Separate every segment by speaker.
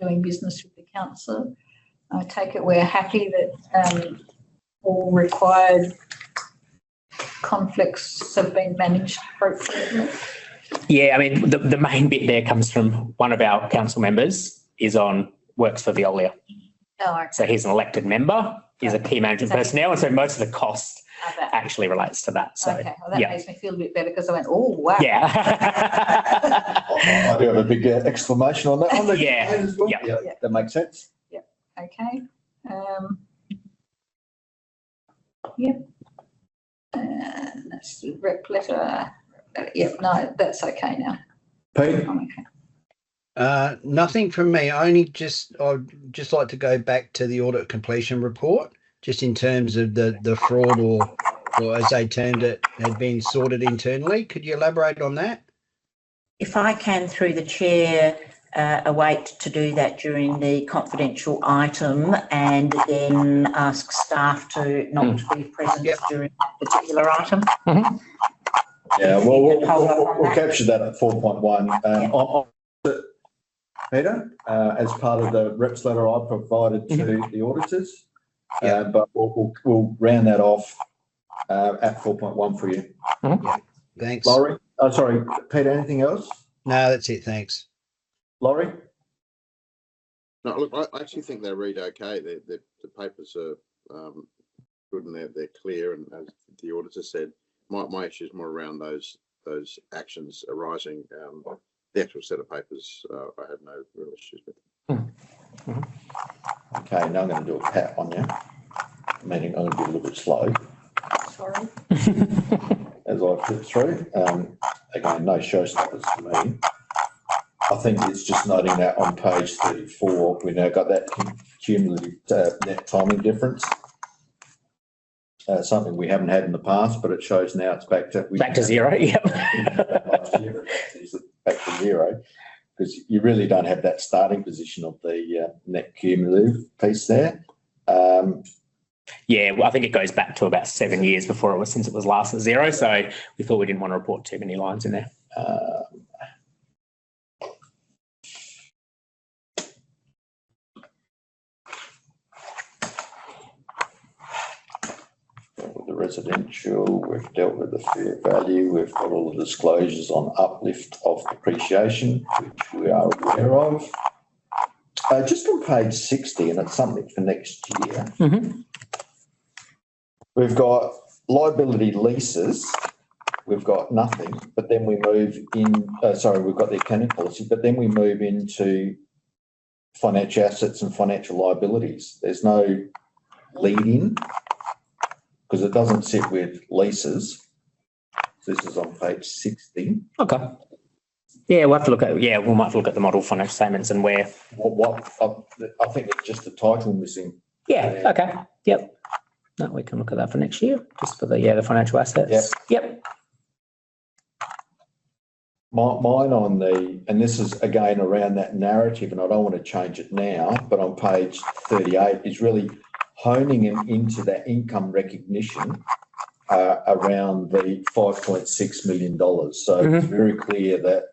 Speaker 1: doing business with the council. I take it we're happy that um, all required conflicts have been managed appropriately.
Speaker 2: Yeah, I mean, the, the main bit there comes from one of our council members is on, works for Veolia.
Speaker 1: Oh, I
Speaker 2: So he's an elected member, he's a key management personnel, and so most of the cost
Speaker 1: I bet.
Speaker 2: actually relates to that, so,
Speaker 1: Okay, well, that
Speaker 2: yeah.
Speaker 1: makes me feel a bit better because I went, oh, wow.
Speaker 2: yeah.
Speaker 3: I do have a big uh, exclamation on that. on the-
Speaker 2: Yeah, yeah.
Speaker 3: Yeah, That makes sense.
Speaker 1: Okay, um. Yep. And that's the rep letter, yep, no, that's okay now,
Speaker 3: Pete,
Speaker 1: I'm okay.
Speaker 4: Uh, nothing from me. I Only just, I'd just like to go back to the audit completion report, just in terms of the, the fraud or, or as they termed it, had been sorted internally. Could you elaborate on that?
Speaker 5: If I can, through the chair, uh, await to do that during the confidential item and then ask staff to not to be present
Speaker 4: Yep.
Speaker 5: during that particular item.
Speaker 3: yeah, well, we'll,
Speaker 5: Hold up
Speaker 3: we'll
Speaker 5: on
Speaker 3: we'll
Speaker 5: that.
Speaker 3: capture that at four point one. Um,
Speaker 2: Oh,
Speaker 3: on- on- Peter, uh, as part of the reps letter I provided to the auditors. Uh,
Speaker 4: Yeah.
Speaker 3: but we'll, we'll, we'll round that off, uh, at four point one for you.
Speaker 4: Thanks. No,
Speaker 3: Laurie, oh, sorry, Peter, anything else?
Speaker 4: that's it. Thanks.
Speaker 3: Laurie?
Speaker 6: No, look, I- I actually think they read okay. The, the, the papers are, um, good and they're, they're clear and as the auditor said, my, my issue is more around those, those actions arising, um, the actual set of papers, uh, I had no real issues with.
Speaker 3: Okay, now I'm gonna do a pat on you. Meaning I'm gonna be a little bit slow.
Speaker 1: Sorry,
Speaker 3: as I flip through. Um, again, no showstoppers for me. I think it's just noting that on page thirty-four, we now got that cum- cumulative uh, net timing difference. Uh, something we haven't had in the past, but it shows now it's back to. we-
Speaker 2: Back to zero, yep.
Speaker 3: Last year, it's Back to zero, because you really don't have that starting position of the uh, net cumulative piece there. Um,
Speaker 2: Yeah, well, I think it goes back to about seven years before it was, since it was last at zero, so we thought we didn't want to report too many lines in there.
Speaker 3: uh, dealt with the residential, we've dealt with the fair value, we've got all the disclosures on uplift of depreciation, which we are aware of. Uh, just on page sixty, and it's something for next year.
Speaker 2: Mhm.
Speaker 3: We've got liability leases, we've got nothing, but then we move in, uh, sorry, we've got the accounting policy, but then we move into financial assets and financial liabilities. There's no lead in because it doesn't sit with leases. This is on page sixty.
Speaker 2: Okay. Yeah, we'll have to look at, yeah, we might have to look at the model financial statements and where,
Speaker 3: What, what, I, I think it's just the title missing.
Speaker 2: yeah, okay, yep. No, we can look at that for next year, just for the, yeah, the financial assets. Yep.
Speaker 3: My, mine on the, and this is again around that narrative, and I don't want to change it now, but on page thirty-eight is really honing them into that income recognition uh, around the five point six million dollars. So it's very clear that,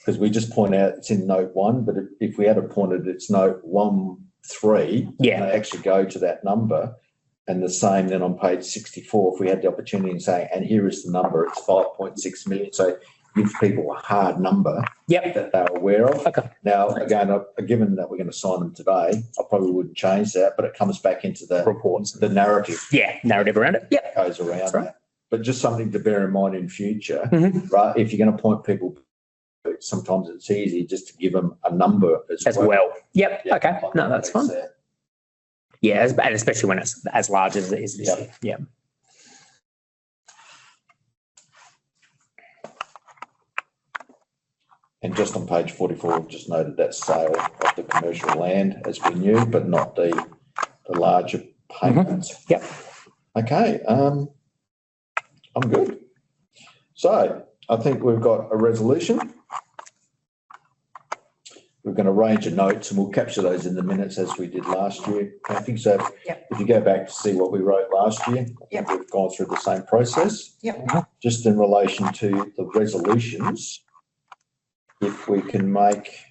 Speaker 3: because we just point out it's in note one, but if, if we had have pointed it's note one, three, and
Speaker 2: Yeah,
Speaker 3: they actually go to that number. And the same then on page sixty-four, if we had the opportunity and say, and here is the number, it's five point six million, so give people a hard number
Speaker 2: yep,
Speaker 3: that they're aware of.
Speaker 2: Okay.
Speaker 3: Now, again, I- given that we're going to sign them today, I probably wouldn't change that, but it comes back into the,
Speaker 2: reports,
Speaker 3: the narrative
Speaker 2: yeah, narrative around it, yep.
Speaker 3: that goes around
Speaker 2: That's right.
Speaker 3: that. But just something to bear in mind in future,
Speaker 2: Mhm.
Speaker 3: right? If you're going to point people, sometimes it's easy just to give them a number as
Speaker 2: As
Speaker 3: well.
Speaker 2: well, yep,
Speaker 3: Yeah,
Speaker 2: okay, no, that's fine, yeah, as- and especially when it's as large as it is this
Speaker 3: Yeah.
Speaker 2: year, yeah.
Speaker 3: And just on page forty-four, we've just noted that sale of the commercial land as we knew, but not the, the larger
Speaker 5: Mm-hmm.
Speaker 3: payments.
Speaker 2: Yep.
Speaker 3: Okay, um, I'm good. So I think we've got a resolution. We're going to arrange a notes and we'll capture those in the minutes as we did last year. I think so.
Speaker 5: Yep.
Speaker 3: If you go back to see what we wrote last year, I think we've gone through the same process.
Speaker 5: Yep.
Speaker 3: Just in relation to the resolutions if we can make